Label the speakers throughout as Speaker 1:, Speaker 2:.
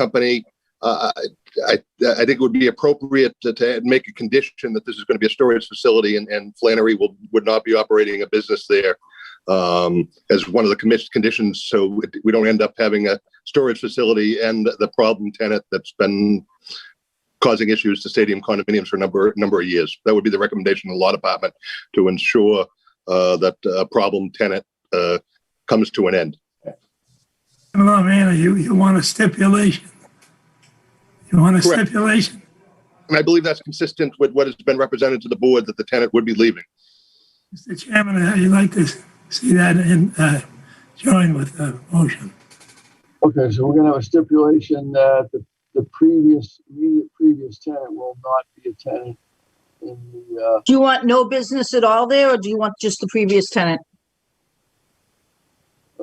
Speaker 1: company. Uh, I, I think it would be appropriate to, to make a condition that this is going to be a storage facility and, and Flannery will, would not be operating a business there um, as one of the commission conditions. So it- we don't end up having a storage facility and the problem tenant that's been causing issues to stadium condominiums for a number, number of years. That would be the recommendation of the law department to ensure uh, that a problem tenant uh, comes to an end.
Speaker 2: I don't know, man, you, you want a stipulation? You want a
Speaker 1: Correct.
Speaker 2: stipulation?
Speaker 1: And I believe that's consistent with what has been represented to the board that the tenant would be leaving.
Speaker 2: Mr. Chairman, I'd like to see that in, uh, join with the motion.
Speaker 3: Okay, so we're gonna have a stipulation that the, the previous, immediate previous tenant will not be a tenant in the, uh,
Speaker 4: Do you want no business at all there, or do you want just the previous tenant?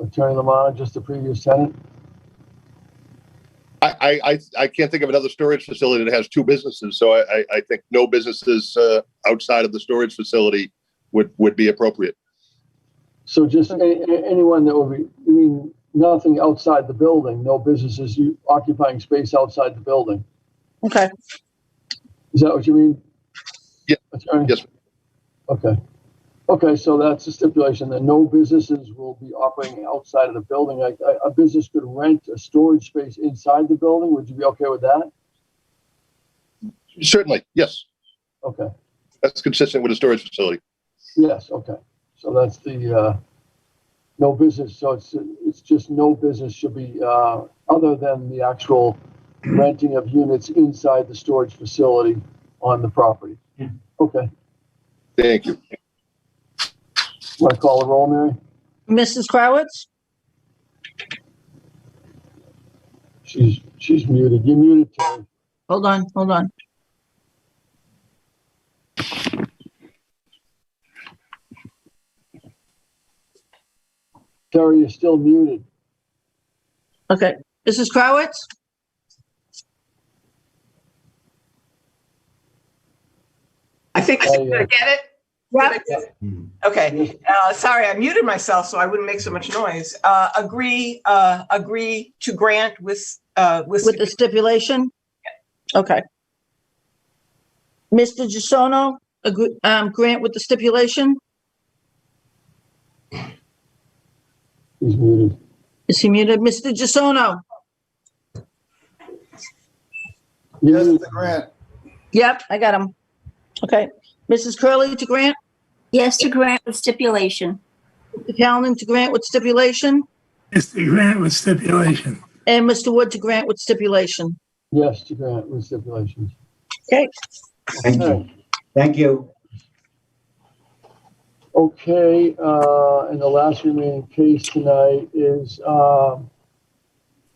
Speaker 3: Attorney Lamont, uh, just the previous tenant?
Speaker 1: I, I, I, I can't think of another storage facility that has two businesses, so I, I, I think no businesses uh, outside of the storage facility would, would be appropriate.
Speaker 3: So just a, a- anyone that would be, you mean, nothing outside the building, no businesses u- occupying space outside the building?
Speaker 4: Okay,
Speaker 3: Is that what you mean?
Speaker 1: Ye-
Speaker 3: Attorney?
Speaker 1: yes.
Speaker 3: Okay. Okay, so that's a stipulation that no businesses will be operating outside of the building. Like, a, a business could rent a storage space inside the building. Would you be okay with that?
Speaker 1: Certainly, yes,
Speaker 3: Okay.
Speaker 1: that's consistent with a storage facility.
Speaker 3: Yes, okay. So that's the, uh, no business, so it's, it's just no business should be, uh, other than the actual renting of units inside the storage facility on the property. Okay,
Speaker 1: Thank you.
Speaker 3: want to call the roll, Mary?
Speaker 4: Mrs. Crowitz,
Speaker 3: She's, she's muted. You're muted, Terry.
Speaker 4: hold on, hold on.
Speaker 3: Terry, you're still muted.
Speaker 4: Okay, Mrs. Crowitz,
Speaker 5: I think,
Speaker 3: Oh,
Speaker 5: did
Speaker 3: yeah. Mm-hmm.
Speaker 5: I get it?
Speaker 4: Yep.
Speaker 5: Did I get it? Okay, uh, sorry, I muted myself so I wouldn't make so much noise. Uh, agree, uh, agree to grant with, uh, with,
Speaker 4: with the stipulation? Okay. Mr. Gisono, agree- um, grant with the stipulation?
Speaker 3: He's muted.
Speaker 4: Is he muted? Mr. Gisono?
Speaker 6: Yes, the grant.
Speaker 4: Yep, I got him. Okay. Mrs. Curley to grant,
Speaker 7: Yes, to grant with stipulation.
Speaker 4: Mr. Callen to grant with stipulation,
Speaker 2: Mr. Grant with stipulation.
Speaker 4: and Mr. Wood to grant with stipulation.
Speaker 3: Yes, to grant with stipulations.
Speaker 4: Okay.
Speaker 8: Thank you. Thank you.
Speaker 3: Okay, uh, and the last remaining case tonight is, um,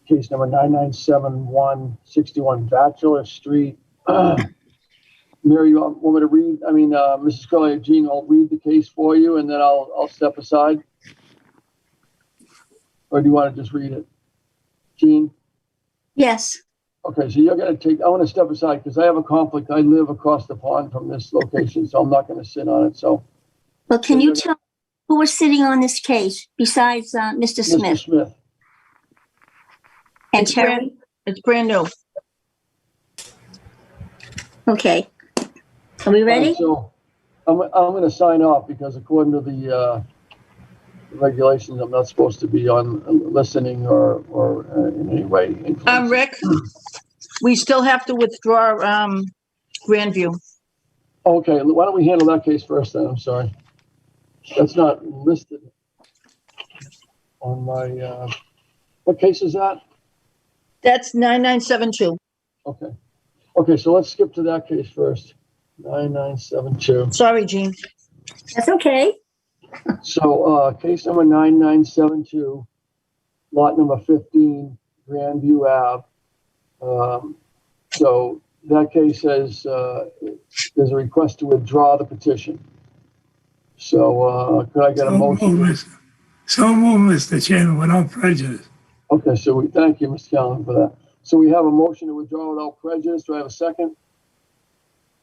Speaker 3: case number nine nine seven one sixty-one Bachelor Street. Mary, you want want me to read, I mean, uh, Mrs. Curley, or Jean, I'll read the case for you and then I'll, I'll step aside? Or do you want to just read it? Jean?
Speaker 7: Yes,
Speaker 3: Okay, so you're gonna take, I wanna step aside because I have a conflict. I live across the pond from this location, so I'm not gonna sit on it, so.
Speaker 7: but can you
Speaker 3: Sure.
Speaker 7: tell who was sitting on this case besides uh, Mr.
Speaker 3: Mr.
Speaker 7: Smith
Speaker 3: Smith,
Speaker 7: and
Speaker 4: It's brand-
Speaker 7: Terry?
Speaker 4: It's brand new.
Speaker 7: Okay. Are we ready?
Speaker 3: Alright, So I'm, I'm gonna sign off because according to the, uh, regulations, I'm not supposed to be on uh, listening or, or uh, in any way.
Speaker 4: Um,
Speaker 3: influencing.
Speaker 4: Rick, we still have to withdraw, um, Grandview.
Speaker 3: Okay, why don't we handle that case first then? I'm sorry. That's not listed on my, uh, what case is that?
Speaker 4: That's 9972.
Speaker 3: Okay. Okay, so let's skip to that case first. 9972.
Speaker 4: Sorry, Gene.
Speaker 7: That's okay.
Speaker 3: So, uh, case number 9972, lot number 15, Grandview Ave. Um, so that case says, uh, there's a request to withdraw the petition. So, uh, could I get
Speaker 2: So
Speaker 3: a
Speaker 2: move,
Speaker 3: motion?
Speaker 2: Mr. So move, Mr. Chairman, without prejudice.
Speaker 3: Okay, so we, thank you, Mr. Callen, for that. So we have a motion to withdraw without prejudice. Do I have a second?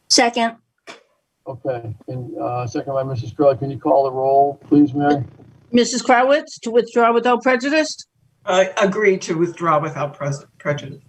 Speaker 7: Second,
Speaker 3: Okay, and, uh, second by Mrs. Curley. Can you call the roll, please, Mary?
Speaker 4: Mrs. Crowitz, to withdraw without prejudice?
Speaker 5: uh, agree to withdraw without pres- prejudice.